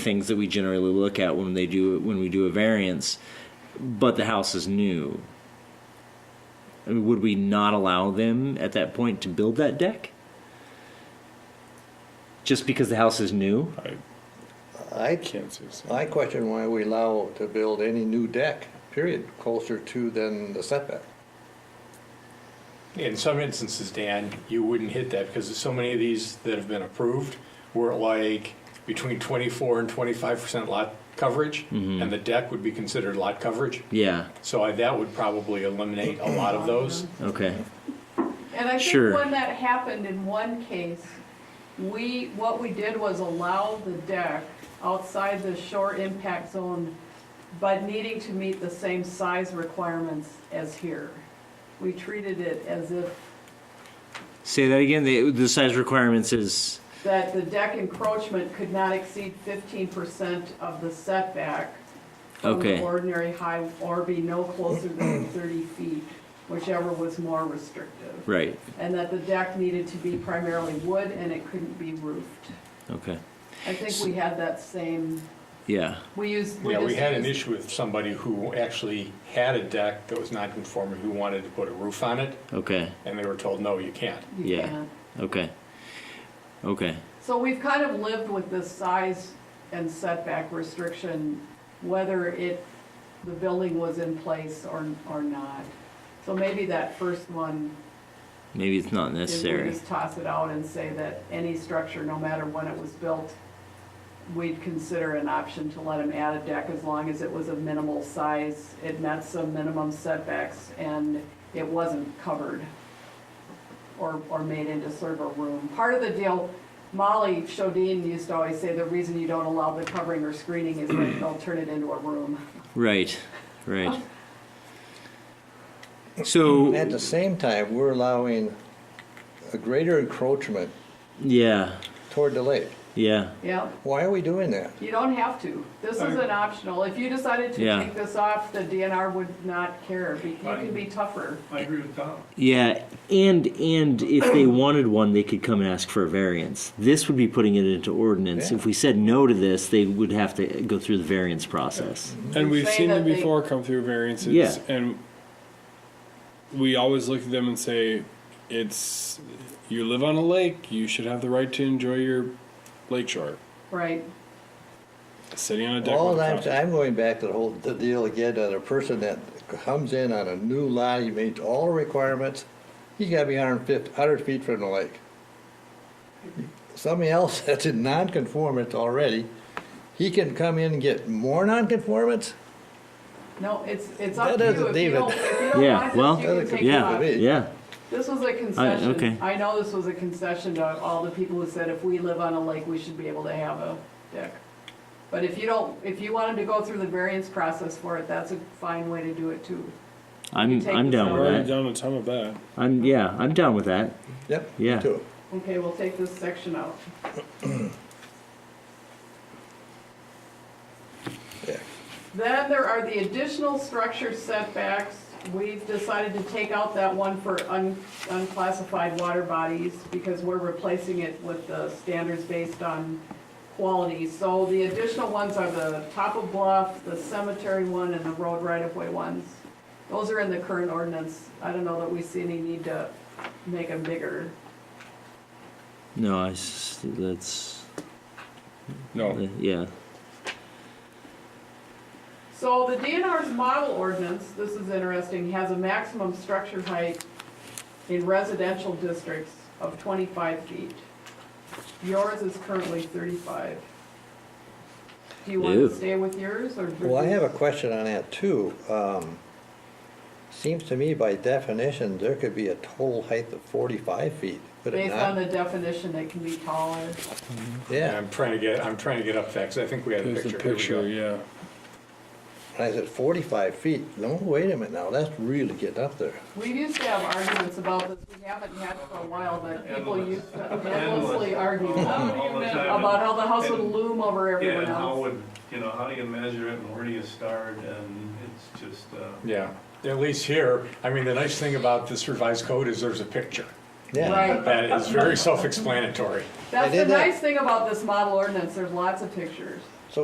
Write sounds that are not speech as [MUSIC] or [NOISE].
things that we generally look at when they do when we do a variance, but the house is new. I mean, would we not allow them at that point to build that deck? Just because the house is new? I I, can't see. so. I question why we allow to build any new deck, period, closer to than the setback. In some instances, Dan, you wouldn't hit that because so many of these that have been approved were like between 24 and 25 percent lot coverage, Mm-hmm. and the deck would be considered lot coverage. Yeah. So I, that would probably eliminate a lot of those. Okay. And I Sure. think when that happened in one case, we, what we did was allow the deck outside the shore impact zone, but needing to meet the same size requirements as here. We treated it as if Say that again. The, the size requirements is that the deck encroachment could not exceed fifteen percent of the setback from Okay. the ordinary high, or be no closer than thirty feet, whichever was more restrictive. right. and that the deck needed to be primarily wood and it couldn't be roofed. Okay. I think we had that same, Yeah. we used. Yeah, we just had an used- issue with somebody who actually had a deck that was non-conforming who wanted to put a roof on it, Okay. and they were told, no, you can't. you yeah. can't. Okay. Okay. So we've kind of lived with this size and setback restriction, whether it, the building was in place or, or not. So maybe that first one, Maybe it's not is we necessary. just toss it out and say that any structure, no matter when it was built, we'd consider an option to let them add a deck as long as it was a minimal size, it met some minimum setbacks, and it wasn't covered or, or made into sort of a room. Part of the deal, Molly Shodine used to always say, the reason you don't allow the covering or screening is that they'll turn it into a room. Right. Right. So At the same time, we're allowing a greater encroachment yeah. toward the lake. Yeah. Yep. Why are we doing that? You don't have to. This is an optional. If you decided to Yeah. take this off, the DNR would not care. Be- You can be tougher. I agree with Tom. Yeah, and and if [CLEARS THROAT] they wanted one, they could come and ask for a variance. This would be putting it into ordinance. Yeah. If we said no to this, they would have to go through the variance process. And we've Say seen them that they- before come through variances. Yeah. And we always look at them and say, it's, you live on a lake, you should have the right to enjoy your lake shore. Right. Sitting on a deck. All with a I'm, fountain. I'm going back to the whole, the deal again, that a person that comes in on a new lot, he meets all the requirements, he's gotta be 150 100 feet from the lake. Somebody else [LAUGHS] that's in non-conformance already, he can come in and get more non-conformance? No, it's, it's up That to you. doesn't If you even- don't, if you don't Yeah, want well, this, you can Doesn't take it compute Yeah, with off. me. yeah, This was a concession. okay. I know this was a concession to all the people who said if we live on a lake, we should be able to have a deck. But if you don't, if you wanted to go through the variance process for it, that's a fine way to do it too. I'm take I'm this down out. We're with already that. done a ton of that. I'm yeah, I'm down with that. Yep. me Yeah. too. Okay, we'll take this section out. Yeah. Then there are the additional structure setbacks. We've decided to take out that one for un- unclassified water bodies because we're replacing it with the standards based on quality. So the additional ones are the top of bluff, the cemetery one, and the road right-of-way ones. Those are in the current ordinance. I don't know that we see any need to make them bigger. No, I s- that's No. yeah. So the DNR's model ordinance, this is interesting, has a maximum structure height in residential districts of twenty-five feet. Yours is currently thirty-five. Do you want Ew. to stay with yours or? Well, I have a question on that too. Um, Seems to me by definition, there could be a total height of 45 feet, could it Based on not? the definition, it can be taller. And Yeah, I'm trying to get, I'm trying to get up that, because I think we had a There's a picture. Here we go. picture, yeah. and I said 45 feet, no, wait a minute now, that's really getting up there. We used to have arguments about this, we haven't had for a while, but people used to endlessly argue about All the time. how the house would loom over Oh, Yeah, everyone and how else. would, you know, how do you measure it and where do you start and it's just, uh, Yeah, at least here, I mean, the nice thing about this revised code is there's a picture. Yeah, Right. That is very self-explanatory. That's They the did that. nice thing about this model ordinance, there's lots of pictures.